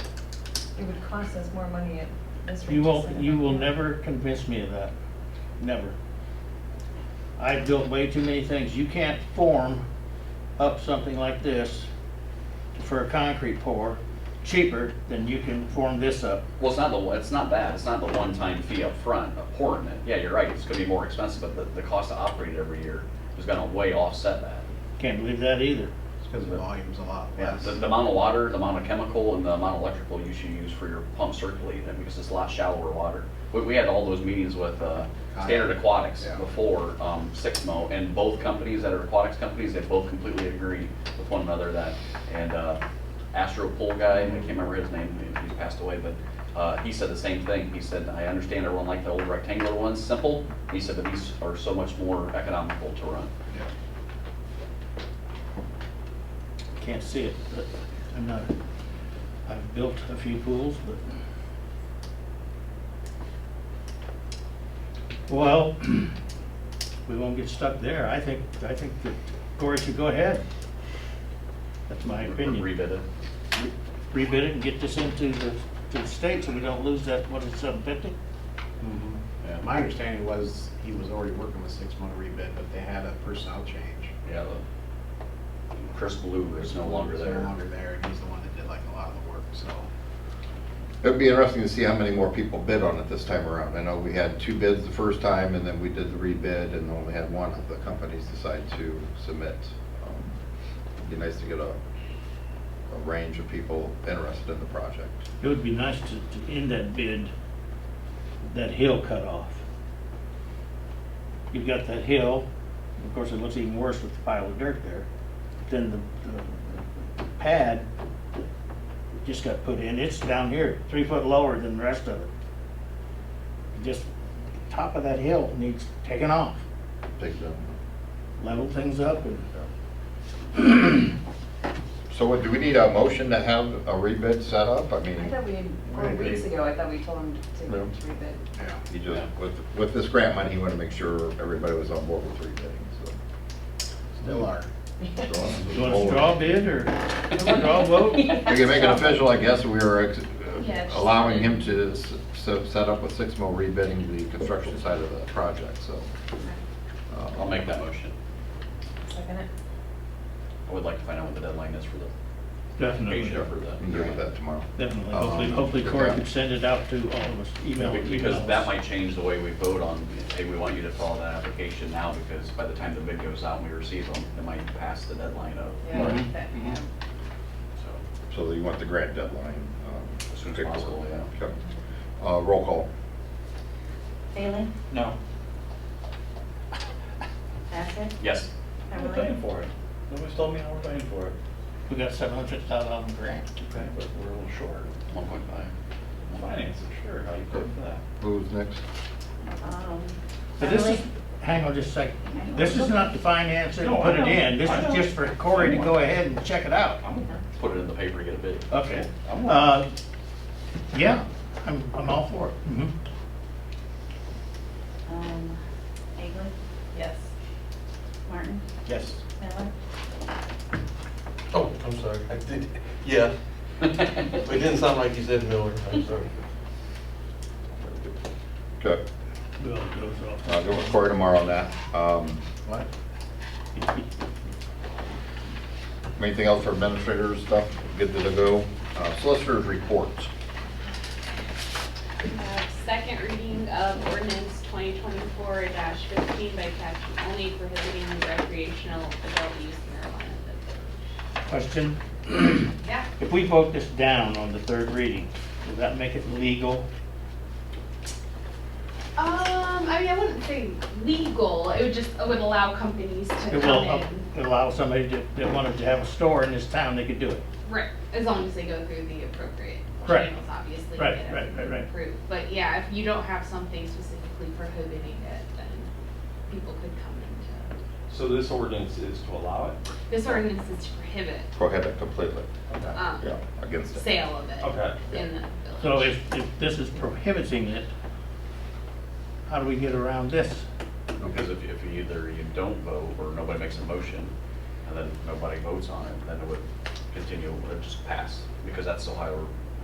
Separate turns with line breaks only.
it would cost us more money at this rate.
You
to
will,
set it
you
up.
will never convince me of that. Never. I've built way too many things. You can't form up something like this for a concrete pour cheaper than you can form this up.
Well, it's not the, one- it's not that, it's not the one-time fee up front of pouring it. Yeah, you're right, it's gonna be more expensive, but the, the cost to operate it every year is gonna way offset that.
Can't believe that either.
Because the volume's a lot
Yeah,
less.
the, the amount of water, the amount of chemical, and the amount of electrical you should use for your pump circulating it, because it's a lot shallower water. We, we had all those meetings with, uh, Standard Aquatics
Yeah.
before, um, Sixmo, and both companies that are aquatics companies, they both completely agree with one another that, and, uh, Astro Pool guy, I can't remember his name, he- he's passed away, but, uh, he said the same thing. He said, I understand everyone liked the old rectangular ones, simple, he said, but these are so much more economical to run.
Yeah.
Can't see it, but I'm not, I've built a few pools, but. Well, we won't get stuck there. I think, I think that Cory should go ahead. That's my opinion.
Rebid it.
rebid it and get this into the, to the state so we don't lose that, what is it, seven fifty?
Mm-hmm.
Yeah.
My understanding was he was already working with six month rebid, but they had a personnel change.
Yeah, the Chris Blue is no longer
He's No
there.
longer there, and he's the one that did like a lot of the work, so.
It'd be interesting to see how many more people bid on it this time around. I know we had two bids the first time, and then we did the rebid, and only had one of the companies decide to submit. Um, It'd be nice to get a, a range of people interested in the project.
It would be nice to, to end that bid, that hill cut off. You've got that hill, of course, it looks even worse with the pile of dirt there. Then the, the pad just got put in, it's down here, three foot lower than the rest of it. Just, top of that hill needs taken off,
Take them.
level things up and
So what, do we need a motion to have a rebid set up? I
I
mean,
thought we, four
Right, we-
weeks ago, I thought we told him to
No.
rebid.
Yeah.
he just, with, with this grant money, he wanted to make sure everybody was on board with rebidding, so.
Still are.
So I'm just
You want a straw
forward.
bid or straw vote?
We can make it official, I guess, we were ex-
Yeah, just-
allowing him to s- s- set up with Sixmo rebidding the construction side of the project, so. uh,
I'll make that motion.
Second it.
I would like to find out what the deadline is for the
Definitely,
Asia for the.
We can deal with that tomorrow.
Oh,
definitely. Hopefully,
Um,
hopefully Cory
yeah.
can send it out to all of us, email.
Because
emails.
that might change the way we vote on, hey, we want you to follow that application now because by the time the bid goes out and we receive them, it might pass the deadline of,
Yeah, that, yeah.
so.
So you want the grant deadline? um,
As soon as
picked up.
possible, yeah.
Okay. Uh, Roll call.
Bailey?
No.
Bassett?
Yes.
We're
Beverly?
paying for it. Nobody's told me how we're paying for it.
We got seven hundred thousand on grant.
Okay, but we're a little short.
One point five.
Finance, I'm sure, how you pay for that.
Who's next?
Um,
But this is,
Beverly?
hang on just a second. This is not to finance it,
No,
and
I
put it
know.
in. This
I
is
know.
just for Cory to go ahead and check it out.
I'm aware.
Put it in the paper, to get a bid.
Okay.
I'm aware.
Uh, yeah, I'm, I'm all for it. Mhm.
Um, Egley,
Yes.
Martin,
Yes.
Miller,
Oh, I'm sorry, I did, yeah, it didn't sound like you said Miller, I'm sorry.
Okay,
Bill goes off.
I'll go with Cory tomorrow on that. Um,
What?
Anything else for administrators stuff? Good to go. Uh, Solicitors reports.
We have Uh, Second reading of ordinance twenty twenty-four fifteen by caption only prohibiting the recreational adult use marijuana.
Question?
Yeah.
If we vote this down on the third reading, does that make it legal?
Um, I mean, I wouldn't say legal, it would just, it would allow companies to
It
come
will
in.
uh, allow somebody that, that wanted to have a store in this town, they could do it.
Right, as long as they go through the appropriate
Right.
channels, obviously. to
Right,
get
right, right, right.
approved. But yeah, if you don't have something specifically prohibiting it, then people could come into,
So this ordinance is to allow it?
this ordinance is to prohibit,
Prohibit completely,
Okay.
um,
yeah, against it.
sale of it.
Okay.
in the
So
village.
if, if this is prohibiting it, how do we get around this?
Because if, if you either you don't vote or nobody makes a motion and then nobody votes on it, then it would continue, it would just pass because that's Ohio